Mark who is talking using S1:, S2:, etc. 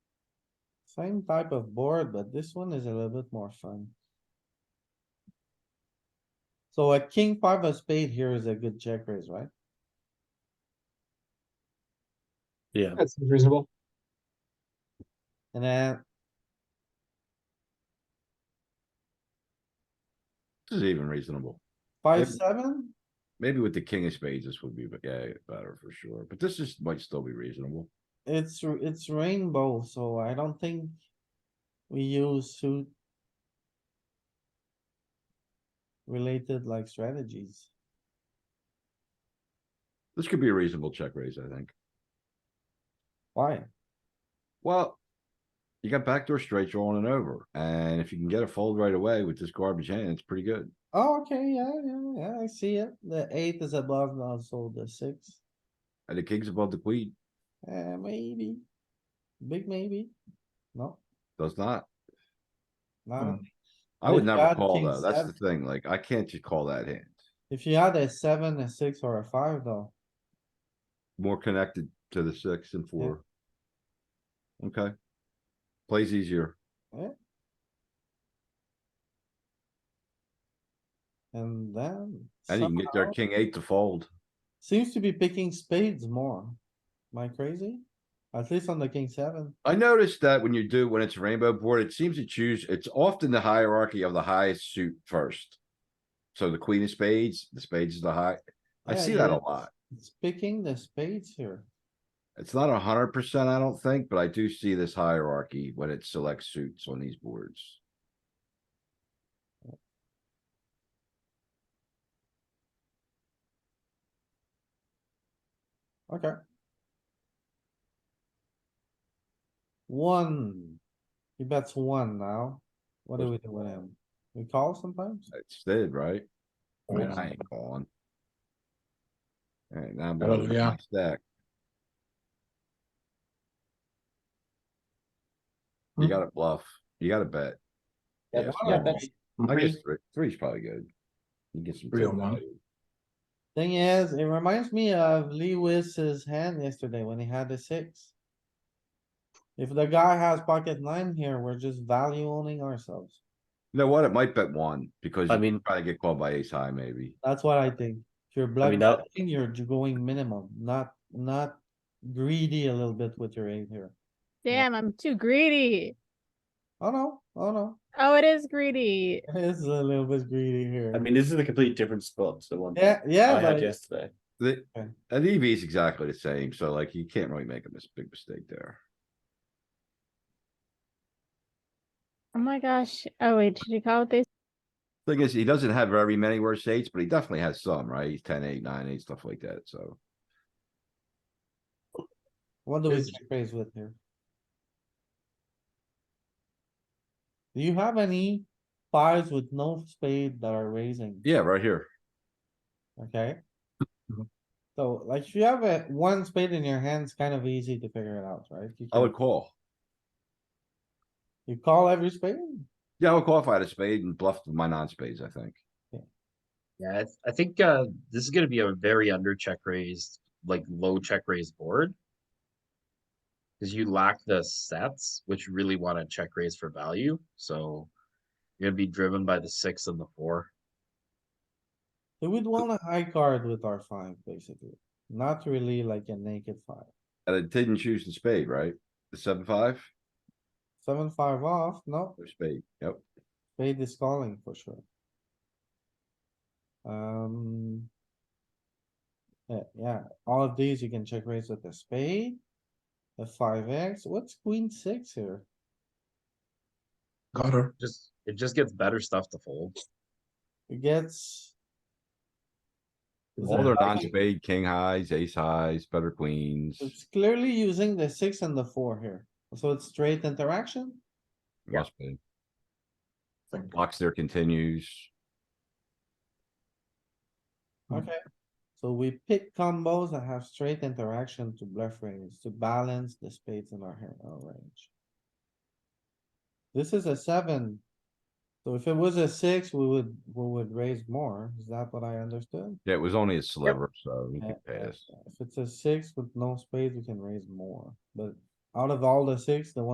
S1: Same type of board, but this one is a little bit more fun. So a king five of spade here is a good check raise, right?
S2: Yeah,
S3: That seems reasonable.
S1: And then
S4: This is even reasonable.
S1: five,
S4: Yep.
S1: seven,
S4: Maybe with the king of spades, this would be, but yeah, better for sure, but this is, might still be reasonable.
S1: it's, r- it's rainbow, so I don't think we use suit related like strategies.
S4: This could be a reasonable check raise, I think.
S1: Why?
S4: Well. You got backdoor straight drawing and over, and if you can get a fold right away with this garbage hand, it's pretty good.
S1: Oh, okay, yeah, yeah, yeah, I see it. The eight is above now, so the six,
S4: And the king's above the queen,
S1: eh, maybe. Big maybe. No,
S4: does not. Hmm.
S1: not, a-
S4: I would
S1: We've
S4: never
S1: got
S4: call
S1: king
S4: though, that's the
S1: seven.
S4: thing, like, I can't just call that hand.
S1: if you had a seven, a six, or a five though,
S4: More connected to the six and four. Okay. Plays easier.
S1: and then.
S4: And you can get their
S1: somehow-
S4: king eight to fold.
S1: Seems to be picking spades more. Am I crazy? At least on the king seven.
S4: I noticed that when you do, when it's rainbow board, it seems to choose, it's often the hierarchy of the highest suit first. So the queen of spades, the spades is the high. I
S1: Yeah,
S4: see that a
S1: yeah.
S4: lot.
S1: It's picking the spades here.
S4: It's not a hundred percent, I don't think, but I do see this hierarchy when it selects suits on these boards.
S1: Okay. One. He bets one now. What do we do with him? We call sometimes?
S4: It's dead, right? I mean,
S1: Oh, Yeah.
S4: I ain't calling. Alright, now I'm
S2: Oh,
S4: gonna look at
S2: yeah.
S4: my stack. You
S1: Hmm.
S4: gotta bluff, you gotta bet.
S3: Yeah,
S4: Yes,
S1: Why
S3: yeah,
S1: don't
S3: that's-
S1: we-
S4: I guess three, three's probably good. You get some.
S2: Three
S4: good
S2: on one.
S4: value.
S1: Thing is, it reminds me of Lewis's hand yesterday when he had the six. If the guy has pocket nine here, we're just value owning ourselves.
S4: You know what? It might bet one because
S2: I
S4: you
S2: mean-
S4: probably get called by ace high maybe.
S1: That's what I think. If you're bluff
S2: that-
S1: betting, you're ju- going minimum, not, not greedy a little bit with your aim here. Yeah.
S5: Damn, I'm too greedy.
S1: Oh no, oh no,
S5: Oh, it is greedy.
S1: it's a little bit greedy here.
S6: I mean, this is a complete different spot to the one
S1: Yeah,
S6: I
S1: yeah,
S6: had
S1: but
S6: yesterday.
S4: The,
S1: Okay.
S4: an EV is exactly the same, so like you can't really make a mis- big mistake there.
S5: Oh my gosh. Oh wait, should you call it this?
S4: Thing is, he doesn't have very many worse eights, but he definitely has some, right? He's ten, eight, nine, eight, stuff like that, so.
S1: what do we
S6: Is-
S1: check raise with here? Do you have any fives with no spade that are raising?
S4: Yeah, right here.
S1: Okay.
S4: Mm-hmm.
S2: Mhm.
S1: So like if you have a one spade in your hand, it's kind of easy to figure it out, right? You
S4: I would
S1: can-
S4: call.
S1: You call every spade?
S4: Yeah, I would call if I had a spade and bluffed with my non-spades, I think.
S7: Yeah, I, th- I think uh, this is going to be a very under check raised, like low check raised board. Because you lack the sets, which you really want to check raise for value. So you're going to be driven by the six and the four.
S1: We would want a high card with our five, basically. Not really like a naked five.
S4: And it didn't choose the spade, right? The seven, five,
S1: Seven, five off, no,
S4: or spade, yep.
S1: spade is calling for sure. Um. Yeah, yeah, all of these you can check raise with the spade. The five X, what's queen six here?
S2: got her.
S7: Just it just gets better stuff to fold.
S1: It gets. Is
S4: All
S1: it
S4: their
S1: like-
S4: non-spade, king highs, ace highs, better queens.
S1: It's clearly using the six and the four here, so it's straight interaction.
S7: Yeah.
S4: Must be.
S2: Think.
S4: Blocks there continues.
S2: Hmm.
S1: Okay, so we pick combos that have straight interaction to bluff range to balance the spades in our hand, our range. This is a seven. So if it was a six, we would, we would raise more. Is that what I understood?
S4: Yeah, it was only a sliver, so you
S1: Yeah,
S4: could pass.
S1: If it's a six with no spades, we can raise more, but out of all the six, the one.